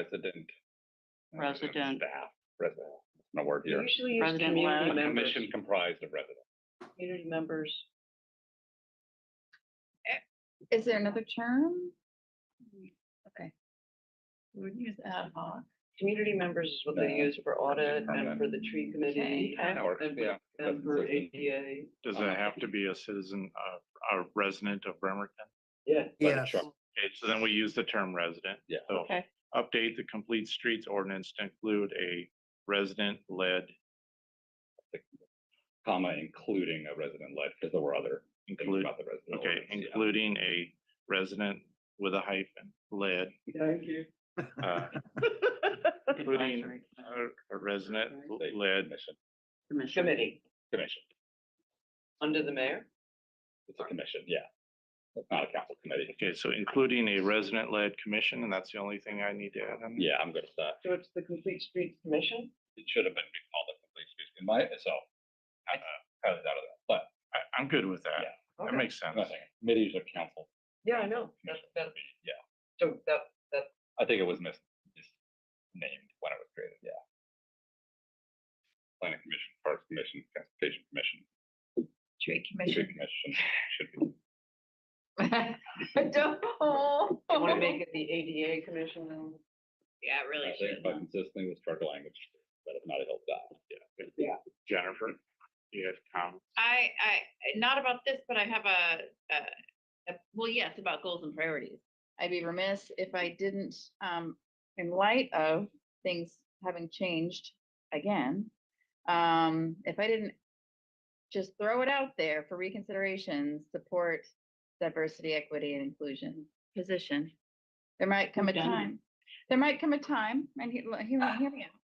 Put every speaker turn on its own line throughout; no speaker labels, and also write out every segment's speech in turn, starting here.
resident. uh,
Resident.
Staff, resident, no word here.
Usually use
President
community
Lowe.
members,
Commission comprised of residents.
community members.
Is there another term?
We would use ad hoc. Community members is what they
Yeah.
use for audit
Okay.
and for the tree committee.
That works,
and-
yeah.
And for ADA.
Does it have
Um,
to be a citizen, uh, a resident of Bremerton?
Yeah.
Yes.
Okay, so then we use the term resident.
Yeah.
So
Okay.
Update the complete streets ordinance to include a resident-led
Comma, including a resident-led, because there were other things
include,
about the resident.
okay,
ordinance, yeah.
including a resident with a hyphen, led,
Thank you.
uh, including
Advisory
a- a resident-led
Commission,
Commission.
Committee,
commission,
under the mayor.
it's a commission, yeah. It's not a council committee.
Okay, so including a resident-led commission, and that's the only thing I need to add on.
Yeah, I'm good with that.
So it's the Complete Streets Commission.
It should have been called a complete streets, in my, so. I, I was out of that, but
I, I'm good with that. That
Okay.
makes sense.
nothing, committees are council,
Yeah, I know. That's, that's,
yeah.
so that, that,
I think it was mis- misnamed when it was created, yeah. Planning commission, parks commission, transportation commission,
Tree
tree
commission.
commission, should be.
Don't.
you want to make it the ADA commission then?
Yeah, it
I think by consistently with structural language, but if not, it'll die, yeah.
Jennifer, you have comments?
I, I, not about this, but I have a, a, a- well, yes, about goals and priorities.
I'd be remiss if I didn't, um, in light of things having changed again, um, if I didn't just throw it out there for reconsideration, support diversity, equity, and inclusion position. There might come a
We've done it.
time, there might come a time, and he, l- hear me, hear me out,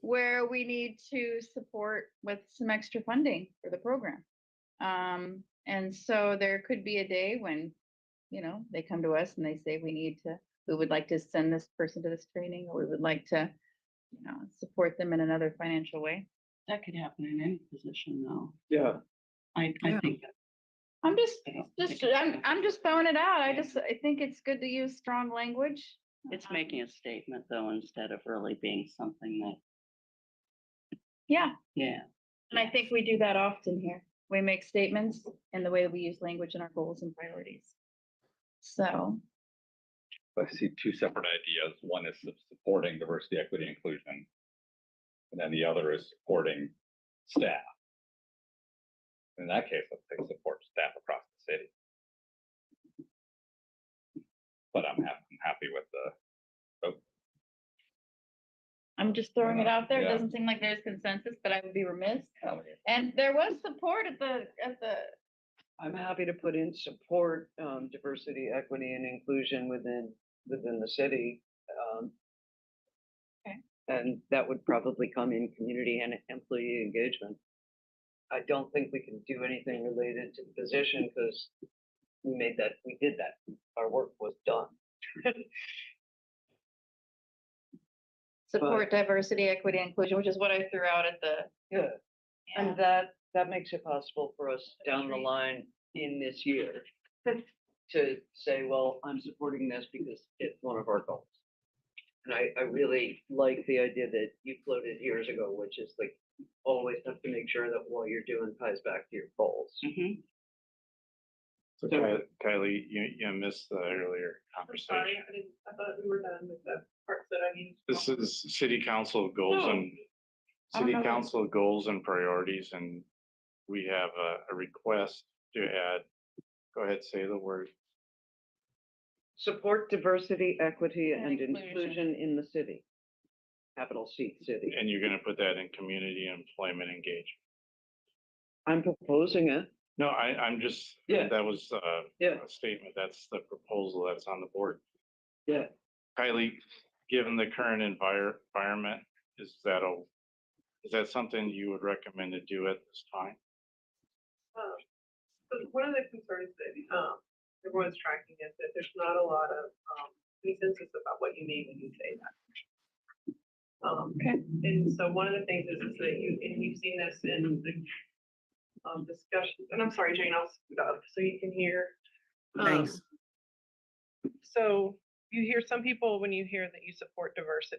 where we need to support with some extra funding for the program. Um, and so there could be a day when you know, they come to us and they say, we need to, we would like to send this person to this training, or we would like to, you know, support them in another financial way.
That could happen in any position though.
Yeah.
I, I think.
I'm just,
I don't
just,
think-
I'm, I'm just throwing it out. I
Yeah.
just, I think it's good to use strong language.
It's
Um,
making a statement though, instead of really being something that,
Yeah,
yeah.
and I think we do that often here. We make statements and the way that we use language in our goals and priorities. So,
I see two separate ideas. One is sup- supporting diversity, equity, inclusion. And then the other is supporting staff. In that case, let's say support staff across the city. But I'm happy, I'm happy with the,
I'm just throwing it
enough.
out there. It
Yeah.
doesn't seem like there's consensus, but I would be remiss.
how
And there was support at the, at the
I'm happy to put in support, um, diversity, equity and inclusion within, within the city. um,
Okay.
And that would probably come in community and employee engagement. I don't think we can do anything related to the position because we made that, we did that. Our work was done.
support diversity, equity, inclusion, which is what I threw out at the.
Yeah.
And
And that, that makes it possible for us down the
Agreed.
line in this year to say, well, I'm supporting this because it's one of our goals. And I, I really like the idea that you floated years ago, which is like, always have to make sure that what you're doing ties back to your goals.
Mhm.
So
So-
Ky- Kylie, you, you missed the earlier conversation.
I thought we were done with the parts that I mean.
This is city council goals
No.
and,
I don't
city
know that-
council goals and priorities, and we have a, a request to add, go ahead, say the word.
Support diversity, equity, and
And
inclusion in the city. Capital C, city.
And you're gonna put that in community employment engagement.
I'm proposing it.
No, I, I'm just,
Yeah.
that was, uh,
Yeah.
a statement, that's the proposal that's on the board.
Yeah.
Kylie, given the current envir- environment, is that a, is that something you would recommend to do at this time?
Um, So one of the concerns that, um, everyone's tracking is that there's not a lot of, um, consensus about what you mean when you say that. Um, and so one of the things is, is that you, and you've seen this in the, um, discussions, and I'm sorry, Jane, I'll scoot up so you can hear. Um, So
you hear some people, when you hear that you support diversity,